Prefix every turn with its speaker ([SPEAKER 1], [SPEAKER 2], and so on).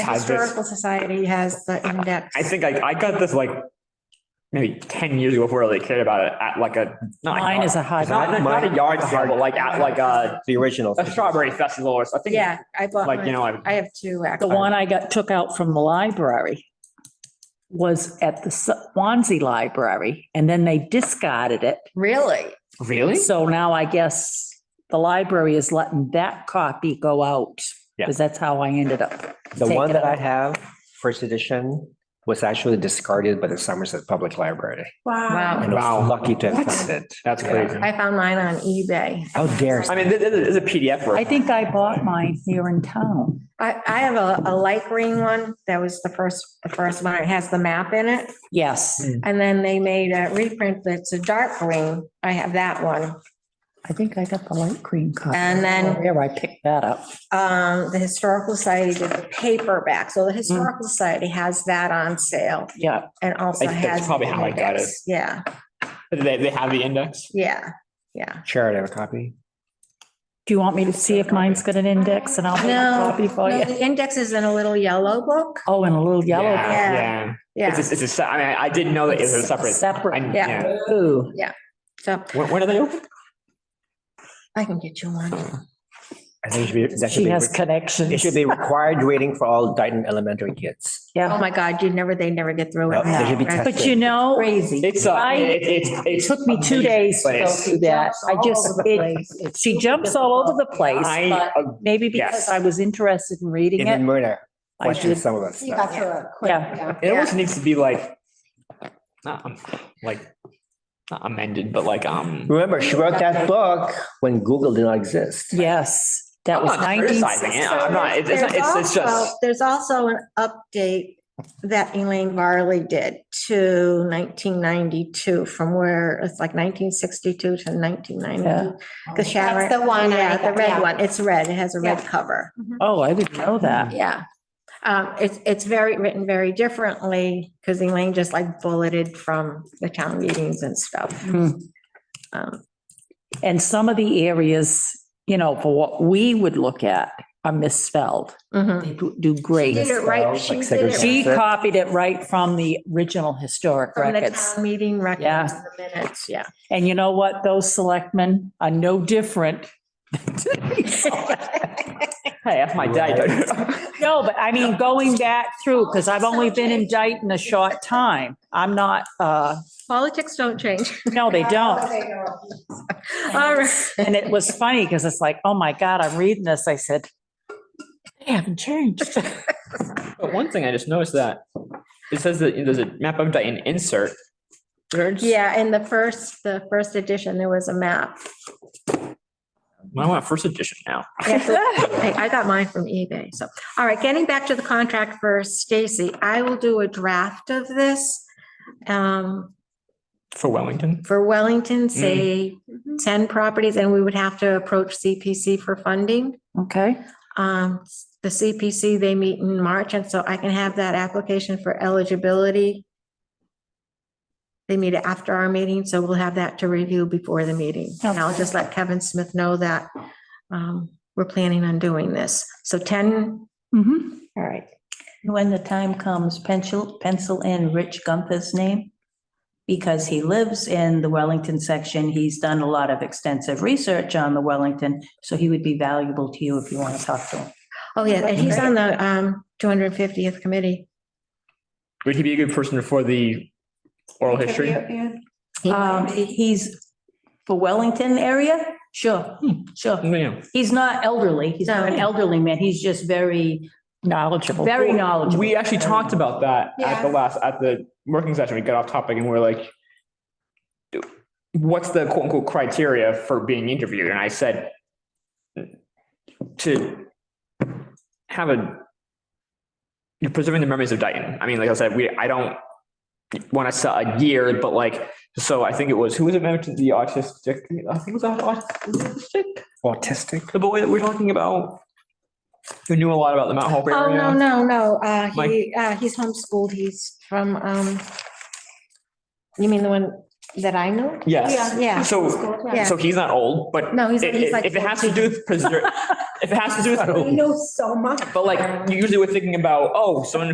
[SPEAKER 1] had this-
[SPEAKER 2] Historical Society has the index.
[SPEAKER 1] I think I, I got this like maybe ten years ago before they cared about it at like a. not a
[SPEAKER 3] Mine
[SPEAKER 1] yard-
[SPEAKER 3] is a hot.
[SPEAKER 1] Not, not not a yard sale, but like at like a,
[SPEAKER 4] The original.
[SPEAKER 1] a strawberry festival or something.
[SPEAKER 2] Yeah, I bought,
[SPEAKER 1] Like,
[SPEAKER 2] mine.
[SPEAKER 1] you know, I-
[SPEAKER 2] I have two
[SPEAKER 3] The
[SPEAKER 2] actually.
[SPEAKER 3] one I got, took out from the library was at the Swansea Library, and then they discarded it.
[SPEAKER 2] Really?
[SPEAKER 1] really?
[SPEAKER 3] So now I guess the library is letting that copy go out,
[SPEAKER 1] Yeah.
[SPEAKER 3] because that's how I ended up.
[SPEAKER 4] The
[SPEAKER 3] Take
[SPEAKER 4] one
[SPEAKER 3] it
[SPEAKER 4] that I
[SPEAKER 3] out.
[SPEAKER 4] have, first edition, was actually discarded by the Somerset Public Library.
[SPEAKER 2] Wow.
[SPEAKER 4] And I was
[SPEAKER 1] Wow.
[SPEAKER 4] lucky to have
[SPEAKER 1] What?
[SPEAKER 4] found it.
[SPEAKER 1] That's
[SPEAKER 4] Yeah.
[SPEAKER 1] crazy.
[SPEAKER 2] Um, I found mine on eBay.
[SPEAKER 4] How dare.
[SPEAKER 1] I mean, this this is a PDF.
[SPEAKER 3] I
[SPEAKER 1] version.
[SPEAKER 3] think I bought mine here in town.
[SPEAKER 2] I, I have a, a light green one. That was the first, the first one. It has the map in it.
[SPEAKER 1] Mm-hmm.
[SPEAKER 3] Yes,
[SPEAKER 2] And then they made a reprint that's a dark green. I have that one.
[SPEAKER 3] I think I got the light green copy.
[SPEAKER 2] And then-
[SPEAKER 3] Where I picked that up.
[SPEAKER 2] Um, the Historical Society did the paperback. So the
[SPEAKER 1] Mm.
[SPEAKER 2] Historical Society has that on sale
[SPEAKER 3] Yeah,
[SPEAKER 2] and also
[SPEAKER 1] Like,
[SPEAKER 2] has.
[SPEAKER 1] that's probably how I got it.
[SPEAKER 2] index. Yeah,
[SPEAKER 1] They, they have the index.
[SPEAKER 2] yeah, yeah.
[SPEAKER 4] Sharon, have a copy?
[SPEAKER 3] do you want me to see if mine's got an index and I'll make a
[SPEAKER 2] No,
[SPEAKER 3] copy for
[SPEAKER 2] no,
[SPEAKER 3] you?
[SPEAKER 2] the index is in a little yellow book.
[SPEAKER 3] Oh, and a little yellow.
[SPEAKER 1] Yeah,
[SPEAKER 2] Yeah.
[SPEAKER 1] Yeah. It's,
[SPEAKER 2] Yeah,
[SPEAKER 1] a- it's a, se- I mean, I didn't know that it was a separate. I-
[SPEAKER 3] Separate.
[SPEAKER 2] Yeah.
[SPEAKER 3] Ooh,
[SPEAKER 2] so
[SPEAKER 1] When, when are they open?
[SPEAKER 2] I can get you one.
[SPEAKER 4] I think it should be, that should
[SPEAKER 3] she
[SPEAKER 4] be,
[SPEAKER 3] has
[SPEAKER 4] re-
[SPEAKER 3] connections.
[SPEAKER 4] it should be required reading for all Dayton elementary kids.
[SPEAKER 2] Oh,
[SPEAKER 3] Yeah,
[SPEAKER 2] my God, you never, they never get through
[SPEAKER 4] No,
[SPEAKER 2] it.
[SPEAKER 4] They should be
[SPEAKER 2] Right.
[SPEAKER 4] tested.
[SPEAKER 3] but you know. Crazy.
[SPEAKER 1] It's, uh,
[SPEAKER 3] I-
[SPEAKER 1] it, it,
[SPEAKER 3] It
[SPEAKER 1] it
[SPEAKER 3] took me two days to go through that. I just, it, she jumps all over the place,
[SPEAKER 1] I,
[SPEAKER 3] but maybe because
[SPEAKER 1] Yes.
[SPEAKER 3] I was interested in reading
[SPEAKER 4] Even
[SPEAKER 3] it.
[SPEAKER 4] Myrna
[SPEAKER 3] I
[SPEAKER 4] questioned
[SPEAKER 3] did,
[SPEAKER 4] some of us. stuff.
[SPEAKER 3] yeah.
[SPEAKER 1] it almost needs to be like, not, um, like, not amended, but like, um.
[SPEAKER 4] Remember, she wrote that book when Google did not exist.
[SPEAKER 3] Yes, that
[SPEAKER 1] I'm
[SPEAKER 3] was
[SPEAKER 1] not
[SPEAKER 3] nineteen
[SPEAKER 1] criticizing it.
[SPEAKER 3] sixty.
[SPEAKER 1] I'm not, it's, it's, it's- it's just,
[SPEAKER 2] There's also an update that Elaine Varley did to nineteen ninety-two from where it's like nineteen sixty-two to nineteen ninety. The Sharon.
[SPEAKER 5] That's the one I
[SPEAKER 2] Yeah, the
[SPEAKER 5] got, yeah.
[SPEAKER 2] red one. It's red. It has a red cover.
[SPEAKER 3] Oh, I didn't know that.
[SPEAKER 2] Yeah. Um, it's, it's very, written very differently because Elaine just like bulleted from the town meetings and stuff.
[SPEAKER 3] Hmm.
[SPEAKER 2] Um,
[SPEAKER 3] And some of the areas, you know, for what we would look at are misspelled.
[SPEAKER 2] mhm.
[SPEAKER 3] They do do
[SPEAKER 2] She
[SPEAKER 3] great.
[SPEAKER 2] did it right. She
[SPEAKER 4] Like
[SPEAKER 2] did it
[SPEAKER 4] segregation.
[SPEAKER 3] She copied it right from the original historic
[SPEAKER 2] from the
[SPEAKER 3] records.
[SPEAKER 2] town meeting
[SPEAKER 3] Yeah.
[SPEAKER 2] records, and the minutes, yeah.
[SPEAKER 3] And you know what? Those selectmen are no different.
[SPEAKER 1] hey, that's my day.
[SPEAKER 3] No, but I mean, going back through, because I've only been in Dayton a short time. I'm not, uh,
[SPEAKER 2] Politics don't change.
[SPEAKER 3] no, they don't.
[SPEAKER 2] All right.
[SPEAKER 3] And it was funny because it's like, oh my God, I'm reading this. I said, they haven't changed.
[SPEAKER 1] But one thing I just noticed that it says that there's a map of Dayton insert.
[SPEAKER 2] Yeah, in the first, the first edition, there was a map.
[SPEAKER 1] I want first edition now.
[SPEAKER 2] Hey, I got mine from eBay, so. All right, getting back to the contract for Stacy, I will do a draft of this. Um,
[SPEAKER 1] For Wellington?
[SPEAKER 2] for Wellington, say
[SPEAKER 1] Mm-hmm.
[SPEAKER 2] ten properties, and we would have to approach CPC for funding.
[SPEAKER 3] Okay.
[SPEAKER 2] Um, the CPC, they meet in March, and so I can have that application for eligibility. They meet after our meeting, so we'll have that to review before the meeting. And I'll just let Kevin Smith know that um, we're planning on doing this. So ten,
[SPEAKER 3] Mm-hmm.
[SPEAKER 2] all right,
[SPEAKER 6] When the time comes, pencil, pencil in Rich Gunther's name. Because he lives in the Wellington section. He's done a lot of extensive research on the Wellington. So he would be valuable to you if you want to talk to him.
[SPEAKER 2] oh yeah, and he's on the um two hundred and fiftieth committee.
[SPEAKER 1] Would he be a good person for the oral history?
[SPEAKER 6] Um, he's for Wellington area? Sure,
[SPEAKER 3] Hmm.
[SPEAKER 6] sure.
[SPEAKER 1] Yeah.
[SPEAKER 6] He's not elderly. He's not an elderly man. He's just very,
[SPEAKER 3] Knowledgeable.
[SPEAKER 6] very knowledgeable.
[SPEAKER 1] We actually talked about that at the
[SPEAKER 2] Yeah.
[SPEAKER 1] last, at the working session. We got off topic and we we're like, what's the quote unquote criteria for being interviewed? And I said, to have a, you're preserving the memories of Dayton. I mean, like I said, we, I don't want to sell a year, but like, so I think it was, who was it mentioned? The autistic, I think it was autistic,
[SPEAKER 4] Autistic?
[SPEAKER 1] the boy that we're talking about, who knew a lot about the Mount Hope area.
[SPEAKER 2] Oh, no, no, no, uh,
[SPEAKER 1] Mike?
[SPEAKER 2] he, uh, he's homeschooled. He's from um, you mean the one that I know.
[SPEAKER 1] Yes.
[SPEAKER 2] Yeah.
[SPEAKER 1] So,
[SPEAKER 2] Yeah.
[SPEAKER 1] so he's not old, but
[SPEAKER 2] No, he's,
[SPEAKER 1] i- i-
[SPEAKER 2] he's like.
[SPEAKER 1] if it has to do with preserve, if it has to do with,
[SPEAKER 5] know so much.
[SPEAKER 1] but like, you usually we're thinking about, oh, someone